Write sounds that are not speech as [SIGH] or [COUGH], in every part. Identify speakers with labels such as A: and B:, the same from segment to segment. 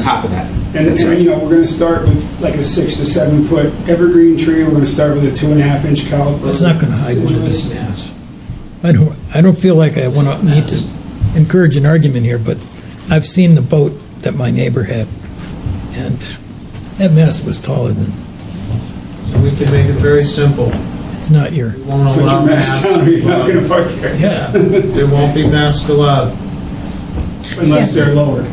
A: top of that.
B: And,
A: That's
B: and,
A: right.
B: you know, we're gonna start with like a six to seven foot evergreen tree, we're gonna start with a two and a half inch caliper.
C: That's not going to hide what this
B: deciduous.
C: is. I don't, I don't feel like I want to need to encourage an argument here, but I've seen the boat that my neighbor had, and that mast was taller than,
D: So we can make it very simple.
C: it's not your,
D: We won't
B: Put
D: allow
B: your mask [LAUGHS]
D: masks.
B: down, you're not gonna
D: allowed.
B: fuck here,
C: yeah.
D: There won't be masks allowed.
B: unless they're lowered.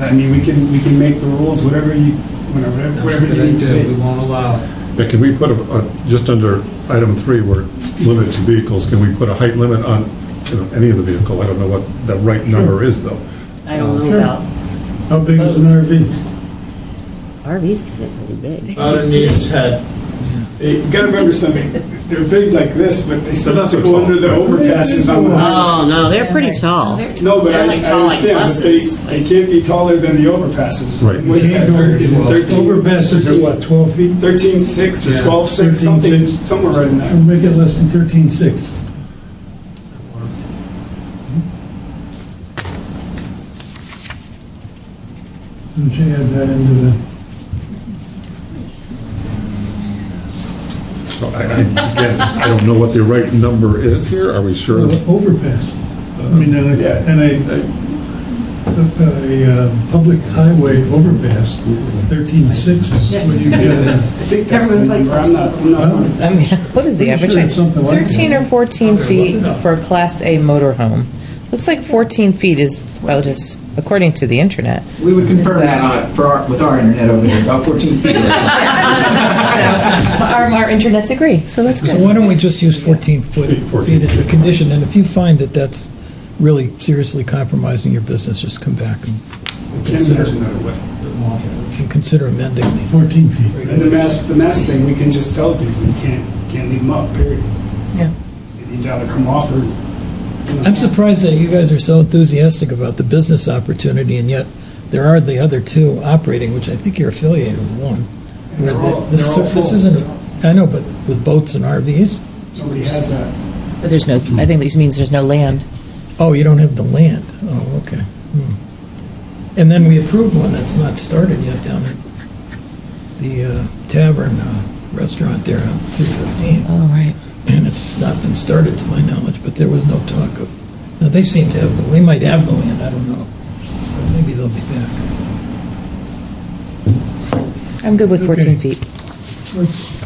B: I mean, we can, we can make the rules, whatever you, whatever,
D: That's
B: whatever
D: what
B: you
D: they
B: need to
D: do. We
B: do.
D: won't allow. it.
E: Yeah, can we put, a- a- just under item three, where limited to vehicles, can we put a height limit on you know, any of the vehicle? I don't know what the right number is, though.
F: I don't know about,
G: How big is an RV?
F: RVs can get pretty big.
D: About a need's head.
B: You gotta remember something, they're big like this, but they still
E: They're
B: have
E: not
B: to
E: so
B: go
E: tall.
B: under the overpasses on the.
F: Oh, no, they're pretty tall.
B: No, but I,
F: They're like
B: I
F: tall like
B: understand, but they,
F: buses,
B: they can't be taller than the overpasses.
E: Right.
B: What is that, thir- is it thirteen,
G: Overpasses are what, 12 feet?
B: thirteen six or
D: Yeah.
B: twelve six, something,
G: 13.6.
B: somewhere right in
G: So
B: there.
G: make it less than 13.6. And she add that into the,
E: So I, I- again, I don't know what the right number is here, are we sure?
G: the overpass. I mean, and
B: Yeah.
G: a, and a, a uh, public highway overpass, 13.6 is what you get. in
B: [LAUGHS]
G: a-
B: I think that's the
H: Everyone's like,
B: number. I'm not, I'm not.
G: Huh?
H: I mean, what is the
G: Pretty
H: average
G: sure
H: height?
G: it's something like that.
H: 13 or 14 feet for a Class A motorhome. Looks like 14 feet is about as, according to the internet.
I: We would confirm that on, for our, with our internet over here, about 14 feet.
H: [LAUGHS]
A: [LAUGHS]
H: Our, our internets agree, so that's
C: So why don't we just use 14 foot,
E: Feet, 14
C: feet as a condition, and if you find that that's really seriously compromising your business, just come back and-
B: Can measure that away.
C: and consider amending the
G: 14 feet.
B: And the mask, the mask thing, we can just tell people, you can't, can't leave them up, period.
H: Yeah.
B: You gotta come off or. you know.
C: I'm surprised that you guys are so enthusiastic about the business opportunity, and yet there are the other two operating, which I think you're affiliated with one.
B: And
C: Where
B: they're all-
C: the- This
B: they're all
C: this
B: full.
C: isn't, I know, but with boats and RVs?
B: Nobody has that.
H: But there's no, I think this means there's no land.
C: Oh, you don't have the land? Oh, okay. Hmm. And then we approved one that's not started yet down at the uh, tavern uh, restaurant there on 315,
H: Oh, right.
C: and it's not been started to my knowledge, but there was no talk of, now, they seem to have, the they might have the land, I don't know. Maybe they'll be back.
H: I'm good with 14 feet.
G: Let's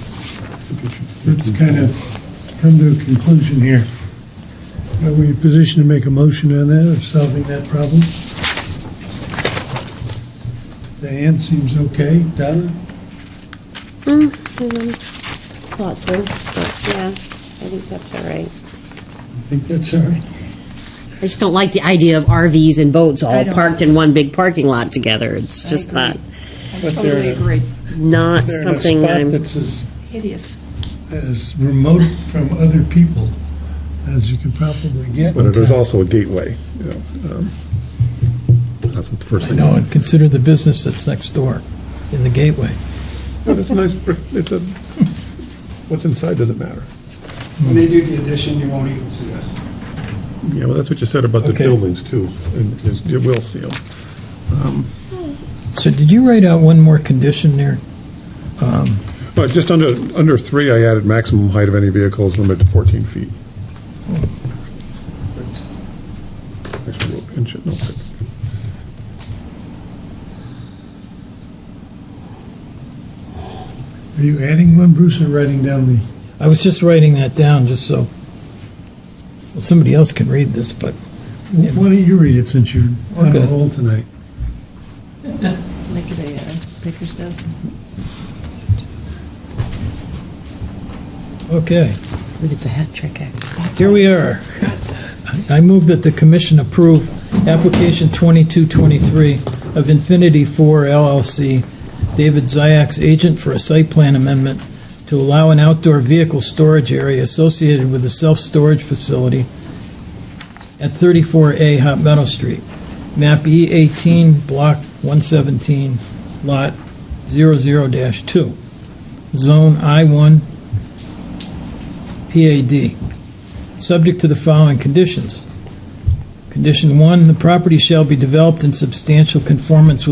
G: let's kind of come to a conclusion here. Are we in a position to make a motion on that, of solving that problem? Diane seems okay. Donna?
F: Thoughtful, but yeah, I think that's all right.
G: I think that's all right.
J: I just don't like the idea of RVs and boats
F: I
J: all
F: don't.
J: parked in one big parking lot together. It's just not,
G: But
H: Oh,
G: they're in a-
J: not
G: they're in a
J: something
G: spot
J: I'm,
G: that's as,
H: Hideous.
G: as remote from other people as you could probably get.
E: But it is also a gateway, you know. um, That's the first
C: I
E: thing.
C: know, and consider the business that's next door in the gateway.
E: But it's a nice, brick- it's a, what's inside doesn't matter.
B: When they do the addition, you won't even see us.
E: Yeah, well, that's what you said about the
C: Okay.
E: buildings, too, and it it will seal.
C: So did you write out one more condition there? Um,
E: Uh, Just under, under three, I added maximum height of any vehicle is limited to 14 feet. Actually, we'll pinch it, no, but-
G: Are you adding one, Bruce, or writing down the?
C: I was just writing that down, just so, well, somebody else can read this, but Yeah.
G: Why don't you read it since you're on
C: Okay.
G: a roll tonight?
H: Make it a uh, Baker's dozen.
C: Okay,
H: Look, it's a hat trick, actually.
C: here we are. I move that the commission approve application 2223 of Infinity 4 LLC, David Zayak's agent for a site plan amendment to allow an outdoor vehicle storage area associated with a self-storage facility at 34A Hot Meadow Street, map E18, block 117, lot 00-2, zone I1, PAD, subject to the following conditions. Condition one, the property shall be developed in substantial conformance with